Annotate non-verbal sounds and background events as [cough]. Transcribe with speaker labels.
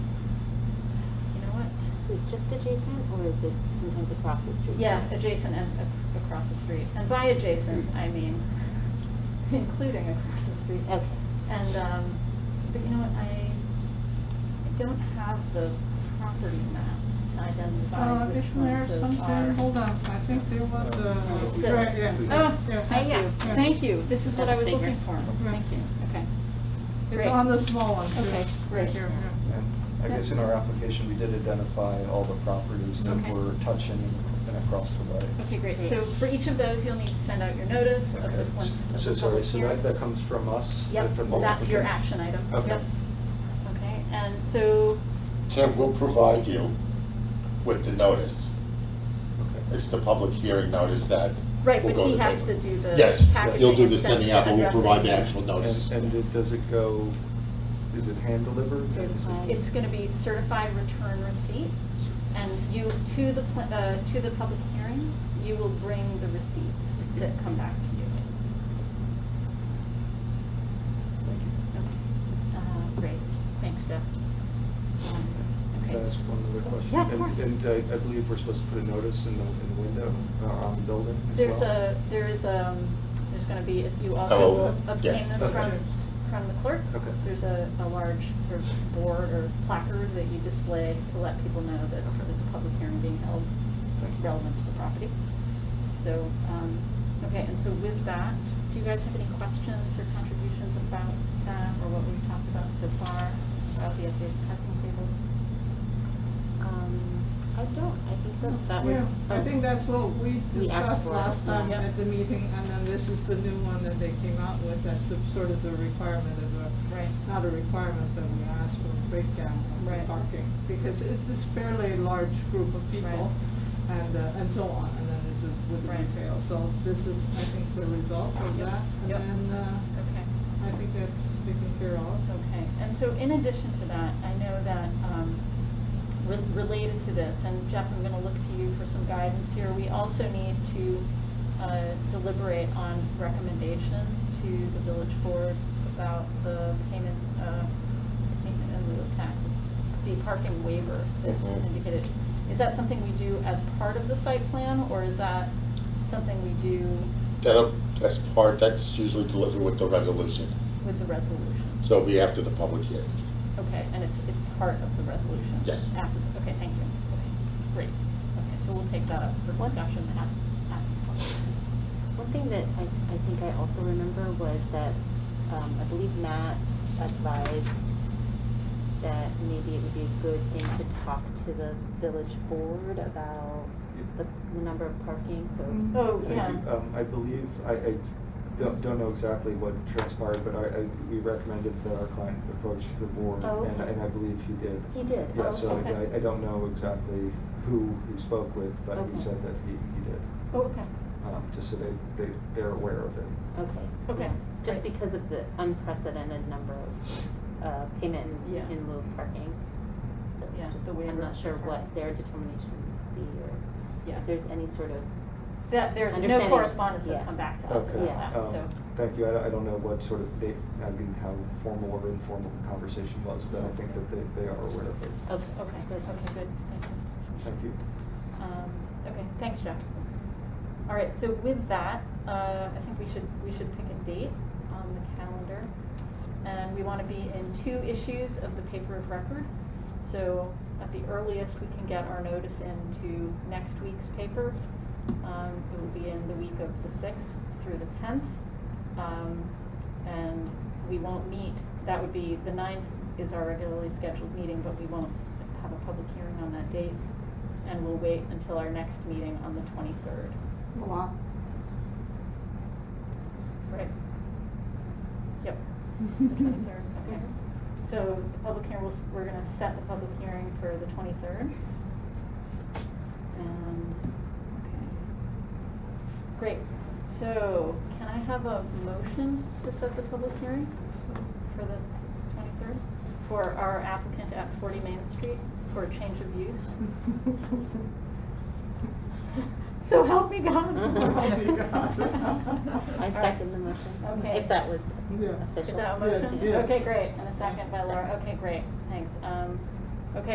Speaker 1: just adjacent, or is it sometimes across the street?
Speaker 2: Yeah, adjacent and ac- across the street. And by adjacent, I mean including across the street.
Speaker 1: Okay.
Speaker 2: And, um, but you know what, I I don't have the property map to identify
Speaker 3: Uh,
Speaker 2: which
Speaker 3: isn't there
Speaker 2: ones those
Speaker 3: something,
Speaker 2: are.
Speaker 3: hold on, I think there was a.
Speaker 2: So-
Speaker 3: right, yeah,
Speaker 2: Oh,
Speaker 3: yeah,
Speaker 2: thank you,
Speaker 3: yeah.
Speaker 2: thank you. This is what I was
Speaker 1: That's bigger.
Speaker 2: looking for.
Speaker 3: Yeah.
Speaker 2: Thank you, okay.
Speaker 3: It's
Speaker 2: Great.
Speaker 3: on the small one, too.
Speaker 2: Okay, great.
Speaker 3: Right here, yeah.
Speaker 4: I guess in our application, we did identify all the properties that
Speaker 2: Okay.
Speaker 4: were touching and across the way.
Speaker 2: Okay, great. So for each of those, you'll need to send out your notice of the
Speaker 4: Okay.
Speaker 2: ones of
Speaker 4: So,
Speaker 2: the
Speaker 4: sorry,
Speaker 2: public
Speaker 4: so
Speaker 2: hearing.
Speaker 4: that, that comes from us?
Speaker 2: Yep,
Speaker 4: From the-
Speaker 2: that's your
Speaker 4: okay.
Speaker 2: action item.
Speaker 4: Okay.
Speaker 2: Yep. Okay, and so,
Speaker 5: Tim, we'll provide you with the notice.
Speaker 4: Okay.
Speaker 5: It's the public hearing notice that
Speaker 2: right,
Speaker 5: will
Speaker 2: but
Speaker 5: go to
Speaker 2: he
Speaker 5: the
Speaker 2: has to
Speaker 5: paper.
Speaker 2: do the
Speaker 5: Yes,
Speaker 2: packaging
Speaker 5: you'll do
Speaker 2: and
Speaker 5: the
Speaker 2: send
Speaker 5: sending out, but we'll
Speaker 2: addressing.
Speaker 5: provide the actual notice.
Speaker 4: And, and it- does it go, is it hand delivered?
Speaker 1: Certified.
Speaker 2: It's going to be certified return receipt, and you, to the, pl- uh, to the public hearing, you will bring the receipts that come back to you. Okay. Uh, Great, thanks, Jeff. Um,
Speaker 4: Can
Speaker 2: Okay.
Speaker 4: I ask one other question?
Speaker 2: Yeah, of
Speaker 4: And-
Speaker 2: course.
Speaker 4: And uh, I, I believe we're supposed to put a notice in the, in the window, uh, on the building as well?
Speaker 2: There's a, there is, um, there's gonna be, if you also
Speaker 5: Oh,
Speaker 2: will
Speaker 5: yeah.
Speaker 2: obtain this from,
Speaker 4: Okay.
Speaker 2: from the clerk.
Speaker 4: Okay.
Speaker 2: There's a, a large sort of board or placard that you display to let people know that
Speaker 4: Okay.
Speaker 2: there's a public hearing being held
Speaker 4: Thank you.
Speaker 2: relevant to the property. So, um, okay, and so with that, do you guys have any questions or contributions about that or what we've talked about so far about the updated parking table?
Speaker 1: Um, I don't, I think that that was.
Speaker 3: Yeah, I
Speaker 1: oh,
Speaker 3: think that's what we
Speaker 1: We asked
Speaker 3: discussed
Speaker 1: for
Speaker 3: last
Speaker 1: it,
Speaker 3: time
Speaker 2: yeah.
Speaker 3: at the meeting, and then this is the new one that they came out with, that's the- sort of the requirement of the
Speaker 2: Right.
Speaker 3: not a requirement that we ask for a breakdown of
Speaker 2: Right.
Speaker 3: the parking, because it's fairly a large group of people, and, uh, and so on, and then it's just with the
Speaker 2: Right.
Speaker 3: retail, so this is, I think, the result of
Speaker 2: Yep.
Speaker 3: that, and
Speaker 2: Yep.
Speaker 3: then, uh,
Speaker 2: Okay.
Speaker 3: I think that's taken care of.
Speaker 2: Okay, and so in addition to that, I know that, um, re- related to this, and Jeff, I'm gonna look to you for some guidance here, we also need to, uh, deliberate on recommendation to the village board about the payment, uh, payment in lieu of taxes, the parking waiver that's
Speaker 5: Mhm.
Speaker 2: indicated. Is that something we do as part of the site plan, or is that something we do
Speaker 5: That'll, that's part, that's usually delivered with the resolution,
Speaker 2: with the resolution?
Speaker 5: so it'll be after the public hearing.
Speaker 2: Okay, and it's, it's part of the resolution?
Speaker 5: Yes.
Speaker 2: After, okay, thank you. Okay, Great. Okay, so we'll take that up for
Speaker 1: What?
Speaker 2: discussion at, at the public hearing.
Speaker 1: One thing that I, I think I also remember was that, um, I believe Matt advised that maybe it would be a good thing to talk to the village board about the, the number of parking, so.
Speaker 3: Mm.
Speaker 2: Oh,
Speaker 4: Thank
Speaker 2: yeah.
Speaker 4: you. Um, I believe, I, I don't, don't know exactly what transpired, but I, I, we recommended that our client approach the board.
Speaker 1: Oh,
Speaker 4: And, I-
Speaker 1: okay.
Speaker 4: and I believe he did.
Speaker 1: He did, oh,
Speaker 4: Yeah, so
Speaker 2: okay.
Speaker 4: I, I don't know exactly who he spoke with, but
Speaker 1: Okay.
Speaker 4: he said that he, he did,
Speaker 2: Oh, okay.
Speaker 4: um, just so they, they, they're aware of it.
Speaker 1: Okay.
Speaker 2: Okay,
Speaker 1: yeah. Just
Speaker 2: great.
Speaker 1: because of the unprecedented number of, uh, payment in-
Speaker 2: Yeah.
Speaker 1: in lieu of parking. So
Speaker 2: Yeah,
Speaker 1: just-
Speaker 2: the
Speaker 1: I'm
Speaker 2: waiver
Speaker 1: not sure
Speaker 2: for
Speaker 1: what
Speaker 2: parking.
Speaker 1: their determination would be, or
Speaker 2: Yeah.
Speaker 1: if there's any sort of,
Speaker 2: That, there's no
Speaker 1: Understanding.
Speaker 2: correspondence that's
Speaker 1: Yeah.
Speaker 2: come back to us
Speaker 4: Okay.
Speaker 2: about that,
Speaker 4: um,
Speaker 2: so.
Speaker 4: Thank you. I, I don't know what sort of, they, I mean, how formal or informal the conversation was, but I think that they, they are aware of it.
Speaker 1: okay.
Speaker 2: Okay,
Speaker 1: good.
Speaker 2: okay, good, thank you.
Speaker 4: Thank you.
Speaker 2: Um, Okay, thanks, Jeff. All right, so with that, uh, I think we should, we should pick a date on the calendar. And we want to be in two issues of the paper of record. So at the earliest, we can get our notice into next week's paper. Um, It will be in the week of the 6th through the 10th. Um, And we won't meet, that would be, the 9th is our regularly scheduled meeting, but we won't have a public hearing on that date. And we'll wait until our next meeting on the 23rd.
Speaker 3: Wow.
Speaker 2: Right. Yep, the 23rd, okay. So the public hearing, we'll s- we're going to set the public hearing for the 23rd. And, okay. Great. So can I have a motion to set the public hearing for the 23rd? For our applicant at 40 Main Street for a change of use?
Speaker 3: hmm.
Speaker 2: So help me
Speaker 3: [laughs]
Speaker 2: God.
Speaker 1: Help
Speaker 3: me God.
Speaker 1: I second the motion.
Speaker 2: Okay.
Speaker 1: If that was
Speaker 3: Yeah.
Speaker 1: official.
Speaker 2: Is that a
Speaker 3: Yes,
Speaker 2: motion?
Speaker 3: yes.
Speaker 2: Okay, great, and a second by Laura,
Speaker 1: Second.
Speaker 2: okay, great, thanks. Um,